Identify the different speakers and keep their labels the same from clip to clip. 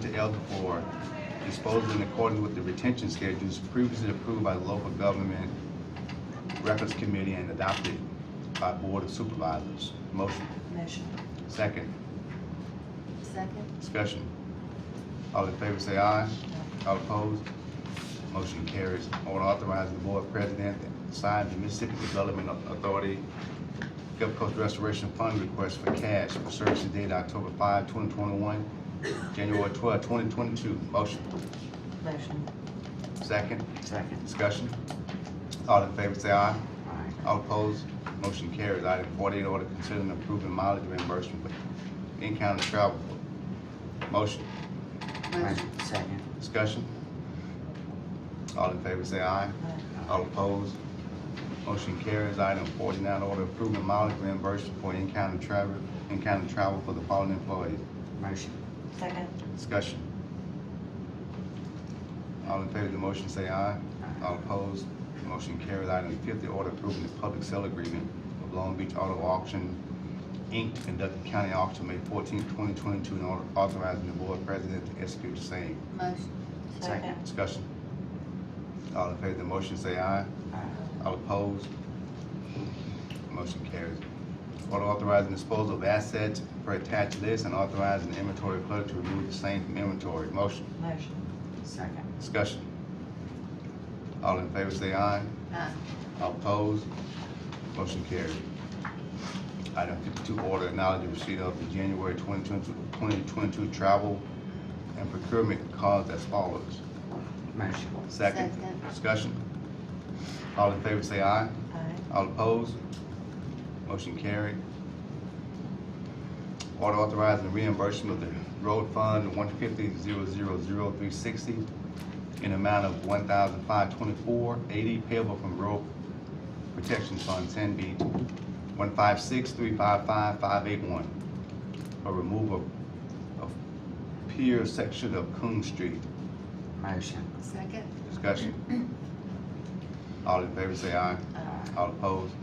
Speaker 1: to elderboard disposed in accordance with the retention schedules previously approved by the local government records committee and adopted by board of supervisors. Motion.
Speaker 2: Motion.
Speaker 1: Second.
Speaker 2: Second.
Speaker 1: Discussion. All in favor say aye. All opposed? Motion carries. Order authorizing the board president to sign the Mississippi Development Authority Gulf Coast Restoration Fund request for cash for services dated October 5, 2021, January 12, 2022. Motion.
Speaker 2: Motion.
Speaker 1: Second.
Speaker 3: Second.
Speaker 1: Discussion. All in favor say aye. All opposed? Motion carries. Item forty-eight, order considering approving mileage reimbursement for in-county travel. Motion.
Speaker 2: Motion.
Speaker 3: Second.
Speaker 1: Discussion? All in favor say aye. All opposed? Motion carries. Item forty-nine, order approving mileage reimbursement for in-county travel, in-county travel for the following employees.
Speaker 3: Motion.
Speaker 2: Second.
Speaker 1: Discussion? All in favor of the motion say aye. All opposed? Motion carries. Item fifty, order approving the public sale agreement of Long Beach Auto Auction, Inc., to conduct the county auction May fourteenth, twenty twenty-two, and order authorizing the board president to execute the same.
Speaker 2: Motion.
Speaker 3: Second.
Speaker 1: Discussion. All in favor of the motion, say aye.
Speaker 3: Aye.
Speaker 1: All opposed? Motion carries. Order authorizing disposal of assets per attached list and authorizing the inventory clerk to remove the same from inventory. Motion.
Speaker 2: Motion.
Speaker 3: Second.
Speaker 1: Discussion. All in favor, say aye.
Speaker 2: Aye.
Speaker 1: All opposed? Motion carries. Item fifty-two, order acknowledging receipt of the January 2022 2022 travel and procurement cards as follows.
Speaker 3: Motion.
Speaker 1: Second. Discussion. All in favor say aye.
Speaker 2: Aye.
Speaker 1: All opposed? Motion carried. Order authorizing reimbursement of the road fund one fifty zero zero zero three sixty in amount of one thousand five twenty-four eighty payable from road protection fund ten B one five six three five five five eight one for removal of pier section of Coon Street.
Speaker 3: Motion.
Speaker 2: Second.
Speaker 1: Discussion. All in favor say aye.
Speaker 2: Aye.
Speaker 1: All opposed?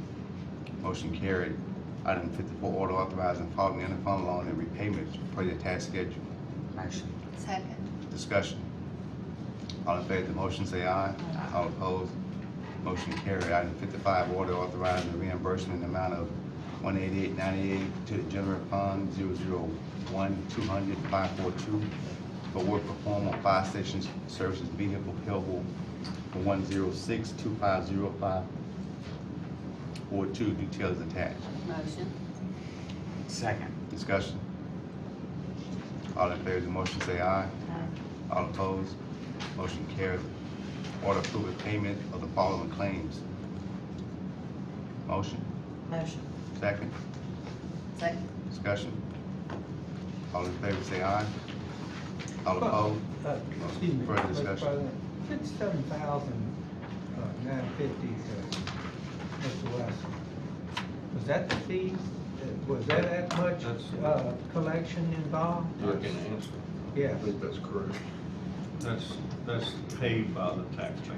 Speaker 1: Motion carried. Item fifty-four, order authorizing following interfund loan and repayments for the attached schedule.
Speaker 3: Motion.
Speaker 2: Second.
Speaker 1: Discussion. All in favor of the motion say aye. All opposed? Motion carried. Item fifty-five, order authorizing the reimbursement in the amount of one eighty-eight ninety-eight to the general fund zero zero one two hundred five four two for work performed on fire station services vehicle payable for one zero six two five zero five four two, details attached.
Speaker 2: Motion.
Speaker 3: Second.
Speaker 1: Discussion. All in favor of the motion say aye. All opposed? Motion carried. Order approving payment of the following claims. Motion,
Speaker 2: Motion.
Speaker 1: second,
Speaker 2: Second.
Speaker 1: discussion. All in favor say aye. All opposed?
Speaker 4: Uh, Excuse me,
Speaker 1: Oh, Further
Speaker 4: Mr.
Speaker 1: discussion.
Speaker 4: President, fifty-seven thousand, uh, nine fifty, uh, Mr. Wesson. Was that the fees? Uh, Was that that much, uh, collection involved?
Speaker 5: I can answer.
Speaker 4: Yes.
Speaker 5: I think that's correct.
Speaker 6: That's, that's paid by the taxpayer.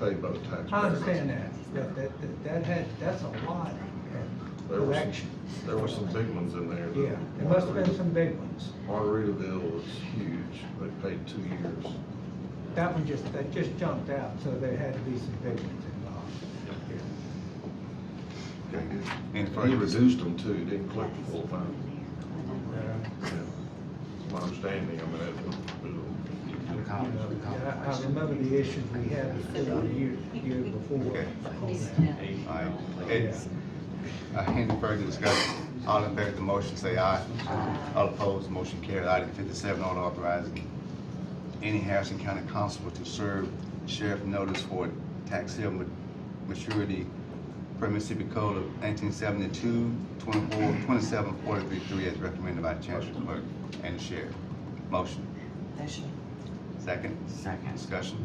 Speaker 5: Paid by the taxpayer.
Speaker 4: I understand that, but that, that- that had, that's a lot of
Speaker 5: There were some-
Speaker 4: collection.
Speaker 5: There were some big ones in there.
Speaker 4: Yeah, there must have been some big ones.
Speaker 5: Margaritaville was huge. They paid two years.
Speaker 4: That one just, that just jumped out, so there had to be some big ones involved.
Speaker 1: Any
Speaker 5: And
Speaker 1: further-
Speaker 5: he reduced them too. He Didn't collect the full amount.
Speaker 4: Uh,
Speaker 5: Yeah. That's my understanding. I mean, it was, it
Speaker 3: No
Speaker 5: was-
Speaker 4: You
Speaker 3: comment,
Speaker 4: know,
Speaker 3: no comment.
Speaker 4: I I remember the issues we had the year, year before.
Speaker 1: Okay.
Speaker 4: on that.
Speaker 1: All right. It's, uh, any further discussion? All in favor of the motion say aye. All opposed? Motion carried. Item fifty-seven, order authorizing any Harrison County constable to serve sheriff notice for tax sale ma- maturity per Mississippi Code of 1972, 24, 27, 43, three, as recommended by Chancellor Clerk and the Sheriff. Motion.
Speaker 2: Motion.
Speaker 1: Second.
Speaker 3: Second.
Speaker 1: Discussion.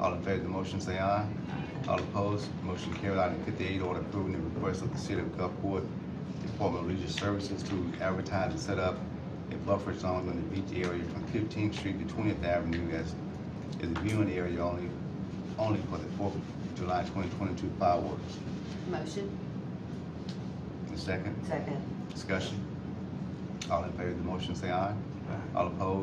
Speaker 1: All in favor of the motion, say aye. All opposed, motion carried. Item fifty-eight, order approving the request of the City of Gulfport Department of Leisure Services to advertise and set up a buffer zone in the beach area from Fifteenth Street to Twentieth Avenue as is a viewing area only, only for the Fourth of July twenty twenty-two fireworks.
Speaker 2: Motion.
Speaker 1: The second,
Speaker 2: Second.
Speaker 1: discussion. All in favor of the motion, say aye. All opposed,